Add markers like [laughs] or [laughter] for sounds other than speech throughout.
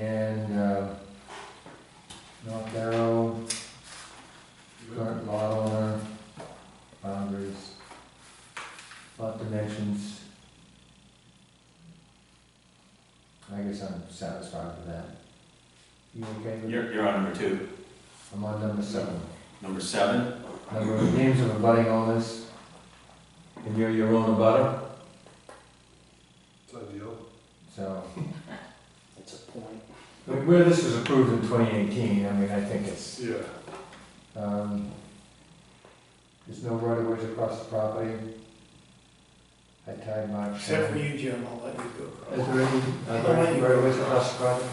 uh, after that. You okay with that? You're, you're on number two. I'm on number seven. Number seven, Number of names of abutting owners. And you're your own abutter, It's ideal. so. [laughs] That's a point. But Where this was approved in twenty eighteen, I mean, I think it's, Yeah. um, there's no right of ways across the property. I tied my. Except for you, Jim, I'll let you Is go. there any, uh, right right of ways across the property?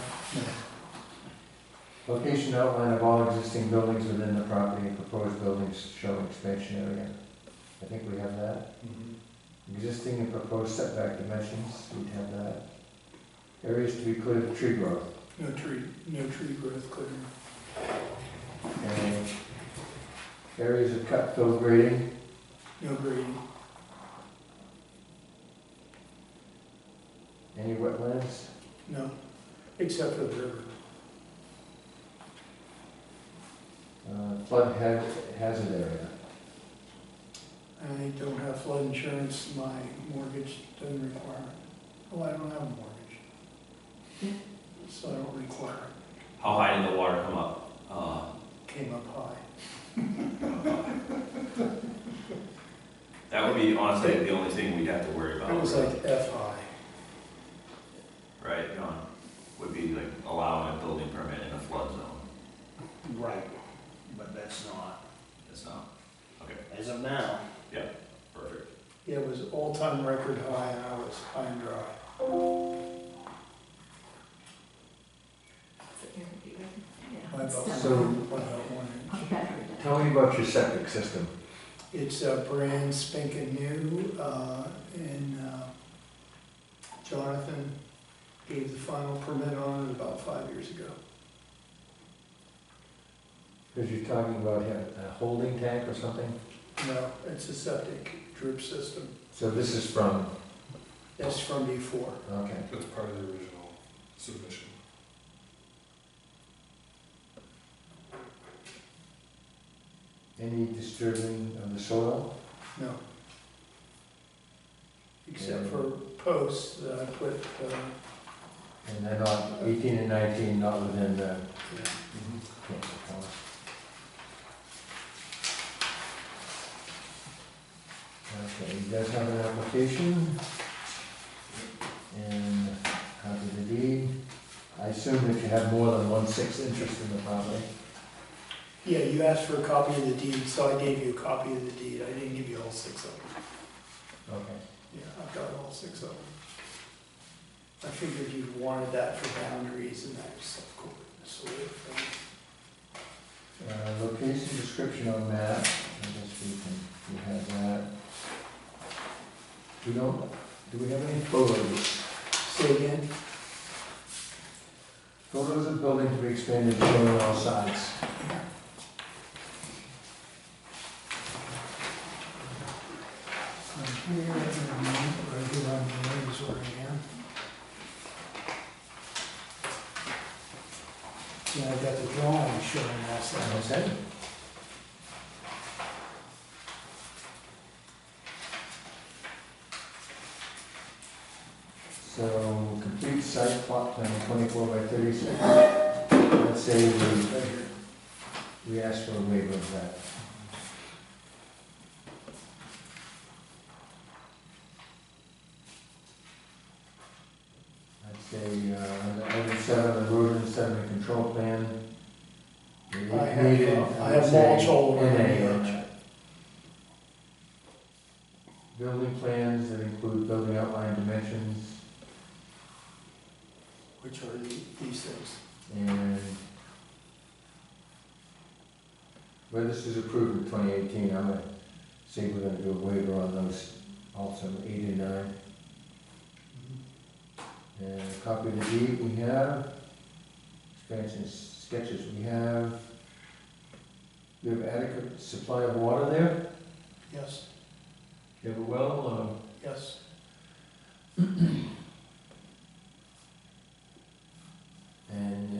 Location outline of all existing buildings within the property, proposed buildings showing expansion area. I think we have that. Mm-hmm. Existing and proposed setback dimensions, we have that. Areas to be cleared of tree growth. No tree, no tree growth clearing. And areas of cut fill grading, No grading. any wetlands. No. Except for the river. Uh, Flood ha- hazard area. I don't have flood insurance. My mortgage doesn't require it. Well, I don't have a mortgage. So I don't require it. how high did the water come up? Uh, Came up high. That would be honestly the only thing we'd have to worry It was about, like F high. right, John? Would be like allowing a building permit in a flood zone. Right, but that's not, It's not, as of now, perfect. It was all-time record high and I was high and dry. By about So- one, by about one inch. Tell me about your septic system. It's uh, brand spanking new, uh, and uh, Jonathan gave the final permit on it about five years ago. Because you're talking about ha- a holding tank or something? No, it's a septic drip system. So this is from, That's from before. okay. That's part of the original submission. Any disturbing of the soil? No. Except for posts that I put, uh, And they're not, 18 and 19, not within the... yeah. Okay, you guys have an application? And copy the deed? I assume that you have more than one-sixth interest in the property? Yeah, you asked for a copy of the deed, so I gave you a copy of the deed. I didn't give you all six of them. Okay. Yeah, I've got all six of them. I figured you wanted that for boundaries and that sort of thing. Uh, Location description on map, I guess we can, we have that. We don't, do we have any photos? Say again? Photos of building to be expanded shown on all sides. From here, and right here on the right is where I am. Yeah, I got the drawing showing us that. Okay. So, complete site plot plan twenty-four by thirty-six. Let's say we, Right here. we asked for a waiver of that. I'd say, uh, under item seven, the road and sediment control plan. we I have, needed, uh, I would have say, mulch all over NA the on edge. that. Building plans that include building outline dimensions Which are the- these things. and where this is approved in twenty eighteen, I'm gonna say we're gonna do a waiver on those also, eight and nine. Mm-hmm. And a copy of the deed we have, expansion sketches we have. We have adequate supply of water there, Yes, you have a well, yes.